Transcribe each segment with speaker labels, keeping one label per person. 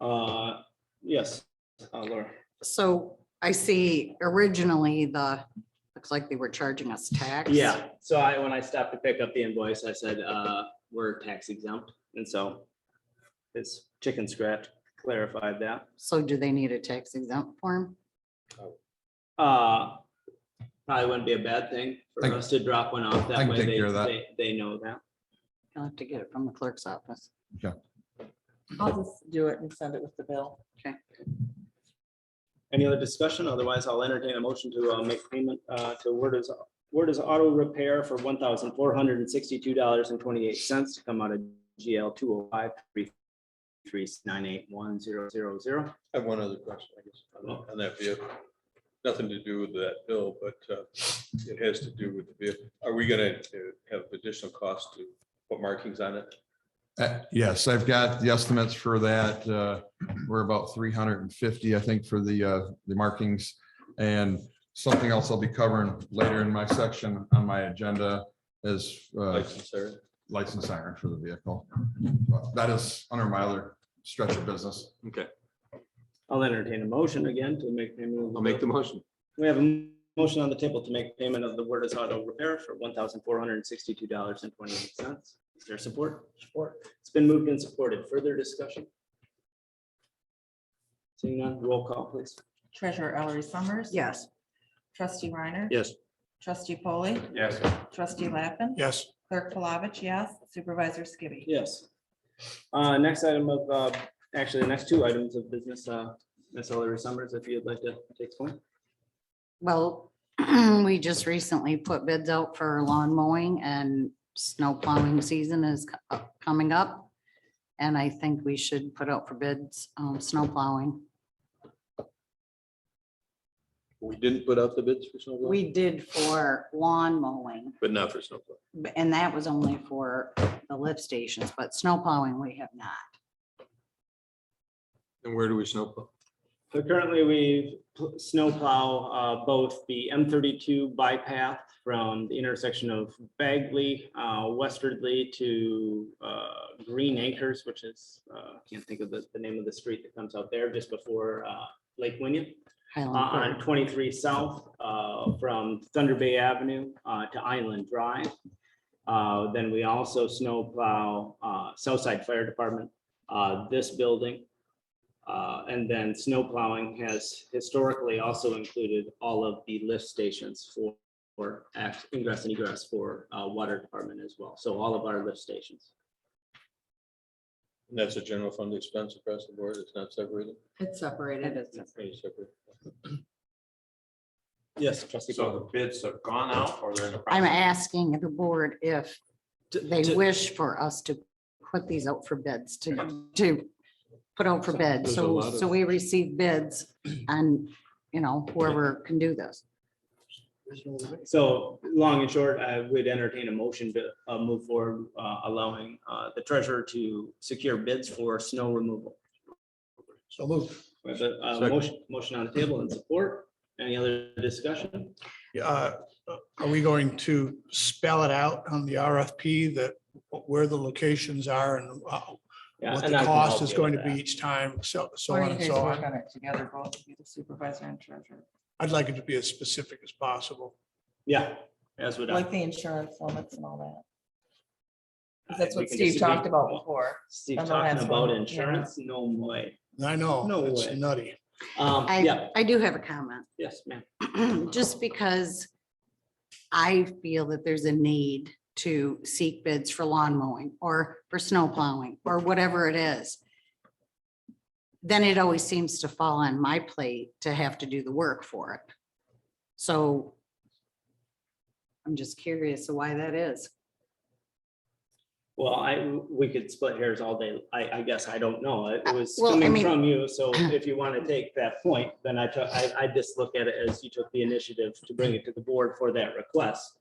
Speaker 1: Uh, yes, uh, Laura.
Speaker 2: So I see originally the, looks like they were charging us tax.
Speaker 1: Yeah, so I, when I stopped to pick up the invoice, I said, uh, we're tax exempt, and so this chicken scratch clarified that.
Speaker 2: So do they need a tax exempt form?
Speaker 1: Uh, probably wouldn't be a bad thing for
Speaker 3: I-
Speaker 1: us to drop one off,
Speaker 3: I
Speaker 1: that
Speaker 3: can
Speaker 1: way
Speaker 3: take
Speaker 1: they,
Speaker 3: care of that.
Speaker 1: they, they know that.
Speaker 2: You'll have to get it from the clerk's office.
Speaker 4: I'll just do it and send it with the bill.
Speaker 1: Any other discussion? Otherwise, I'll entertain a motion to uh, make payment uh, to Word is, Word is Auto Repair for one thousand four hundred and sixty-two dollars and twenty-eight cents to come out of GL two oh five three three nine eight one zero zero zero.
Speaker 5: I have one other question, I guess, on that- on that vehicle. Nothing to do with that bill, but uh, it has to do with the vehicle. Are we gonna uh, have additional cost to put markings on it?
Speaker 3: Uh, Yes, I've got the estimates for that. uh, We're about three hundred and fifty, I think, for the, uh, the markings. And something else I'll be covering later in my section on my agenda is uh,
Speaker 5: License or-
Speaker 3: license siren for the vehicle. That is under my other stretch of business.
Speaker 5: Okay,
Speaker 1: I'll entertain a motion again to make payment.
Speaker 5: I'll make the motion.
Speaker 1: We have a motion on the table to make payment of the Word is Auto Repair for one thousand four hundred and sixty-two dollars and twenty-eight cents. Is there support? Support. It's been moved and supported. Further discussion? Seeing none, roll call, please.
Speaker 4: Treasurer Ellery Summers.
Speaker 2: Yes,
Speaker 4: Trustee Reiner.
Speaker 5: Yes.
Speaker 4: Trustee Polly.
Speaker 5: Yes.
Speaker 4: Trustee Lappin.
Speaker 6: Yes.
Speaker 4: Clerk Palovich, yes. Supervisor Skibby.
Speaker 1: Yes. Uh, next item of, uh, actually, the next two items of business, uh, Ms. Hillary Summers, if you'd like to take one.
Speaker 2: well, we just recently put bids out for lawn mowing and snow plowing season is co- uh, coming up. And I think we should put out for bids, um, snow plowing.
Speaker 5: We didn't put out the bids for snowplow?
Speaker 2: We did for lawn mowing,
Speaker 5: But not for snowplow.
Speaker 2: b- and that was only for the lift stations, but snow plowing we have not.
Speaker 5: And where do we snowplow?
Speaker 1: So currently, we pl- snowplow, uh, both the M thirty-two bypass from the intersection of Bagley, uh, westwardly to, uh, Green Acres, which is, uh, can't think of the, the name of the street that comes out there just before, uh, Lake Winnian.
Speaker 2: Highland
Speaker 1: uh,
Speaker 2: Grove.
Speaker 1: on twenty-three south, uh, from Thunder Bay Avenue, uh, to Island Drive. Uh, then we also snowplow, uh, Southside Fire Department, uh, this building. Uh, and then snowplowing has historically also included all of the lift stations for, for ac- ingress and egress for, uh, water department as well. So all of our lift stations.
Speaker 5: And that's a general fund expense across the board, it's not separated?
Speaker 4: It's
Speaker 2: It
Speaker 4: separated.
Speaker 2: is separate.
Speaker 5: Pretty separate.
Speaker 1: Yes, trustee.
Speaker 7: So the bids have gone out or they're in the.
Speaker 2: I'm
Speaker 7: process?
Speaker 2: asking the board if they wish for us to put these out for bids, to, to put out for bids.
Speaker 5: There's a
Speaker 2: So,
Speaker 5: lot of-
Speaker 2: so we receive bids and, you know, whoever can do this.
Speaker 1: So long and short, I would entertain a motion to uh, move forward, uh, allowing uh, the treasurer to secure bids for snow removal.
Speaker 6: So move.
Speaker 1: We have a uh,
Speaker 5: Second.
Speaker 1: motion, motion on the table and support. Any other discussion?
Speaker 6: Uh, Are we going to spell it out on the RFP that where the locations are and uh,
Speaker 1: Yeah,
Speaker 6: what
Speaker 1: and
Speaker 6: the
Speaker 1: I can
Speaker 6: cost
Speaker 1: help
Speaker 6: is
Speaker 1: you
Speaker 6: going to
Speaker 1: with
Speaker 6: be
Speaker 1: that.
Speaker 6: each time, so, so
Speaker 4: Or
Speaker 6: on
Speaker 4: you
Speaker 6: and
Speaker 4: guys
Speaker 6: so
Speaker 4: work
Speaker 6: on?
Speaker 4: on it together, both of you, the supervisor and treasurer.
Speaker 6: I'd like it to be as specific as possible.
Speaker 1: Yeah, as would I.
Speaker 4: Like the insurance limits and all that. 'Cause That's
Speaker 1: We
Speaker 4: what
Speaker 1: can
Speaker 4: Steve
Speaker 1: just-
Speaker 4: talked about before.
Speaker 1: Steve
Speaker 4: on the
Speaker 1: talking
Speaker 4: last
Speaker 1: about
Speaker 4: one, yeah.
Speaker 1: insurance, no way.
Speaker 6: I know.
Speaker 1: No
Speaker 6: It's
Speaker 1: way.
Speaker 6: nutty.
Speaker 1: Um, yeah,
Speaker 2: I, I do have a comment.
Speaker 1: yes, ma'am.
Speaker 2: just because I feel that there's a need to seek bids for lawn mowing or for snow plowing or whatever it is, then it always seems to fall on my plate to have to do the work for it. So I'm just curious why that is.
Speaker 1: Well, I, we could split hairs all day. I, I guess I don't know. It
Speaker 2: Uh,
Speaker 1: was
Speaker 2: well, I
Speaker 1: coming
Speaker 2: mean-
Speaker 1: from you. So if you want to take that point, then I took, I, I just look at it as you took the initiative to bring it to the board for that request.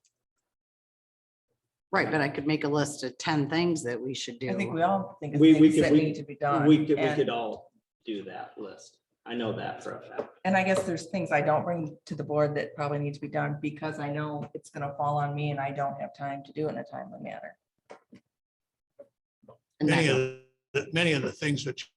Speaker 2: Right, but I could make a list of ten things that we should
Speaker 4: I think
Speaker 2: do.
Speaker 4: we all think of
Speaker 1: We- we
Speaker 4: things
Speaker 1: could-
Speaker 4: that
Speaker 1: we-
Speaker 4: need to be done.
Speaker 1: We could, we
Speaker 4: and-
Speaker 1: could all do that list. I know that for a fact.
Speaker 4: And I guess there's things I don't bring to the board that probably need to be done because I know it's gonna fall on me and I don't have time to do it in a timely manner.
Speaker 2: And
Speaker 6: Many
Speaker 2: that-
Speaker 6: of, the many of the things that